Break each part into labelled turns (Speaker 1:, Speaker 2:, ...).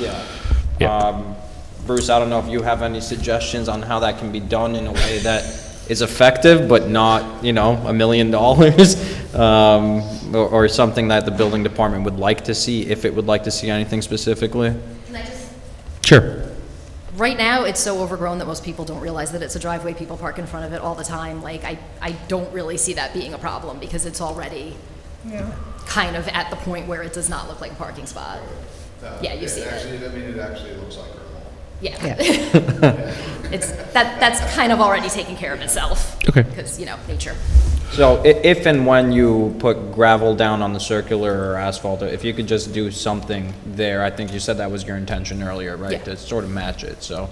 Speaker 1: Yeah.
Speaker 2: Um, Bruce, I don't know if you have any suggestions on how that can be done in a way that is effective, but not, you know, a million dollars, um, or or something that the building department would like to see, if it would like to see anything specifically?
Speaker 3: Can I just,
Speaker 1: Sure.
Speaker 3: right now, it's so overgrown that most people don't realize that it's a driveway. People park in front of it all the time. Like, I, I don't really see that being a problem because it's already kind of at the point where it does not look like a parking spot. Yeah, you see it.
Speaker 4: Actually, I mean, it actually looks like her lawn.
Speaker 3: Yeah. It's, that, that's kind of already taken care of itself.
Speaker 1: Okay.
Speaker 3: Because, you know, nature.
Speaker 2: So i- if and when you put gravel down on the circular or asphalt, if you could just do something there, I think you said that was your intention earlier, right?
Speaker 3: Yeah.
Speaker 2: To sort of match it, so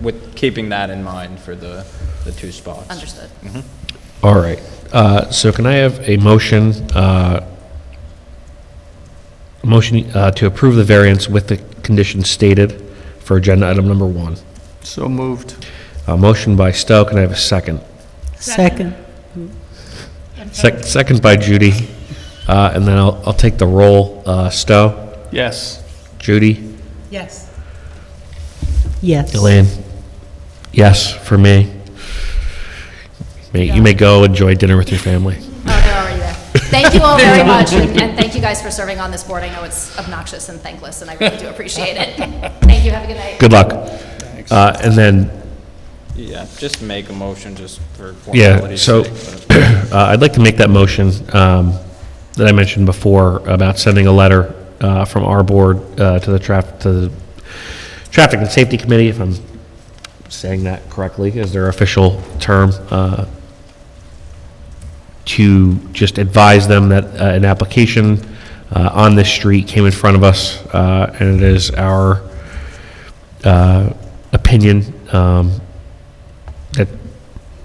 Speaker 2: with keeping that in mind for the, the two spots.
Speaker 3: Understood. Mm-hmm.
Speaker 1: All right. Uh, So can I have a motion, uh, motion uh, to approve the variance with the conditions stated for agenda item number one?
Speaker 5: So moved.
Speaker 1: A motion by Stowe, can I have a second?
Speaker 6: Second.
Speaker 1: Sec- Second by Judy. Uh, And then I'll I'll take the roll. Uh, Stowe?
Speaker 5: Yes.
Speaker 1: Judy?
Speaker 6: Yes. Yes.
Speaker 1: Elaine? Yes, for me. May- You may go enjoy dinner with your family.
Speaker 3: Oh, they're already there. Thank you all very much, and and thank you guys for serving on this board. I know it's obnoxious and thankless, and I really do appreciate it. Thank you, have a good night.
Speaker 1: Good luck. Uh, And then
Speaker 2: Yeah, just make a motion just for
Speaker 1: Yeah,
Speaker 2: formality's
Speaker 1: so
Speaker 2: sake. but-
Speaker 1: uh, I'd like to make that motion um, that I mentioned before about sending a letter uh, from our board uh, to the traffic, to the Traffic and Safety Committee, if I'm saying that correctly, is their official term, uh, to just advise them that uh, an application uh, on this street came in front of us, uh, and it is our uh, opinion um, that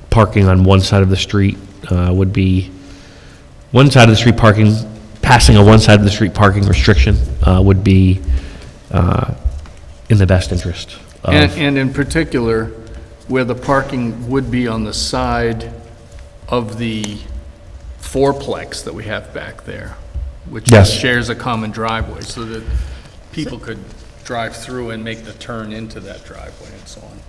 Speaker 1: parking on one side of the street uh, would be, one side of the street parking, passing a one side of the street parking restriction uh, would be uh, in the best interest
Speaker 5: And,
Speaker 1: of,
Speaker 5: and in particular, where the parking would be on the side of the fourplex that we have back there, which
Speaker 1: Yes.
Speaker 5: shares a common driveway, so that people could drive through and make the turn into that driveway and so on.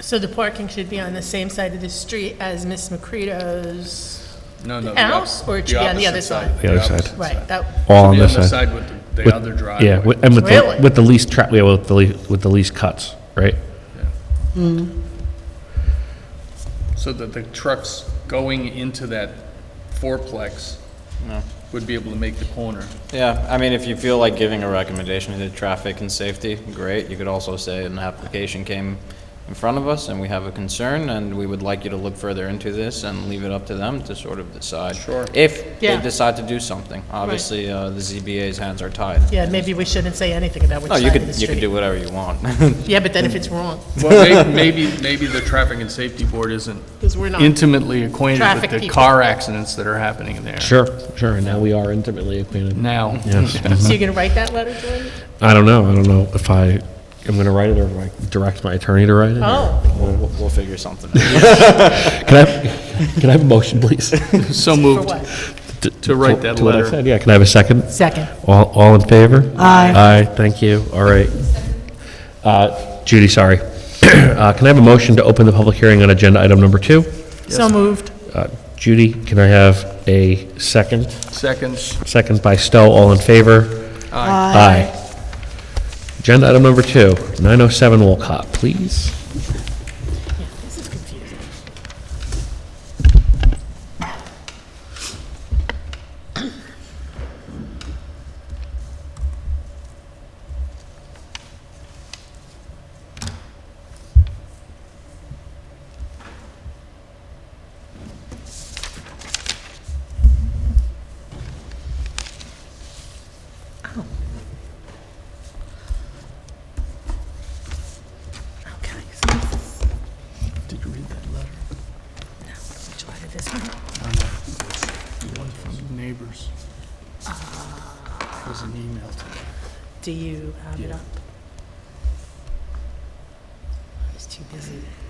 Speaker 7: So the parking should be on the same side of the street as Miss McCready's,
Speaker 5: No, no.
Speaker 7: House, or it should be on
Speaker 5: opposite
Speaker 7: the other side?
Speaker 1: The other side.
Speaker 5: opposite
Speaker 7: right, that,
Speaker 1: all
Speaker 5: Should
Speaker 1: on
Speaker 5: be
Speaker 1: this
Speaker 5: on the
Speaker 1: side.
Speaker 5: side with the-
Speaker 1: With-
Speaker 5: the other
Speaker 1: Yeah,
Speaker 5: driveway.
Speaker 1: with- and with the,
Speaker 7: Really?
Speaker 1: with the least tra, yeah, with the, le- with the least cuts, right?
Speaker 5: So that the trucks going into that fourplex would be able to make the corner.
Speaker 2: Yeah, I mean, if you feel like giving a recommendation to traffic and safety, great. You could also say an application came in front of us and we have a concern and we would like you to look further into this and leave it up to them to sort of decide.
Speaker 5: Sure.
Speaker 2: If they
Speaker 7: Yeah.
Speaker 2: decide to do something. Obviously, uh, the ZBA's hands are tied.
Speaker 7: yeah, maybe we shouldn't say anything about which
Speaker 2: No, you
Speaker 7: side of the
Speaker 2: could, you
Speaker 7: street.
Speaker 2: could do whatever you want.
Speaker 7: Yeah, but then if it's wrong,
Speaker 5: Well, may- maybe, maybe the Traffic and Safety Board isn't
Speaker 7: because we're not.
Speaker 5: intimately acquainted
Speaker 7: Traffic
Speaker 5: with the
Speaker 7: people.
Speaker 5: car accidents that are happening there
Speaker 1: Sure, sure, and now we are intimately acquainted.
Speaker 5: now.
Speaker 7: So you're going to write that letter, Jordan?
Speaker 1: I don't know, I don't know if I am gonna write it or if I direct my attorney to write it. or-
Speaker 7: Oh,
Speaker 2: We'll, we'll- we'll figure something out.
Speaker 1: Can I, have- can I have a motion, please?
Speaker 5: So
Speaker 7: for
Speaker 5: moved.
Speaker 7: what?
Speaker 5: To write that
Speaker 1: To what I
Speaker 5: letter.
Speaker 1: said, Yeah, can I have a second?
Speaker 7: Second.
Speaker 1: All, all in favor?
Speaker 6: Aye.
Speaker 1: Aye, thank you, all right. Uh, Judy, sorry. Uh, Can I have a motion to open the public hearing on agenda item number two?
Speaker 7: So moved.
Speaker 1: Uh, Judy, can I have a second?
Speaker 5: Second,
Speaker 1: Second by Stowe, all in favor? Aye. Agenda item number two, 907 Wolcott, please.
Speaker 6: Okay.
Speaker 5: did you read that letter?
Speaker 6: Which letter this one?
Speaker 5: One from the neighbors. It was an email to them.
Speaker 6: Do you have it
Speaker 5: Yeah.
Speaker 6: up? I was too busy.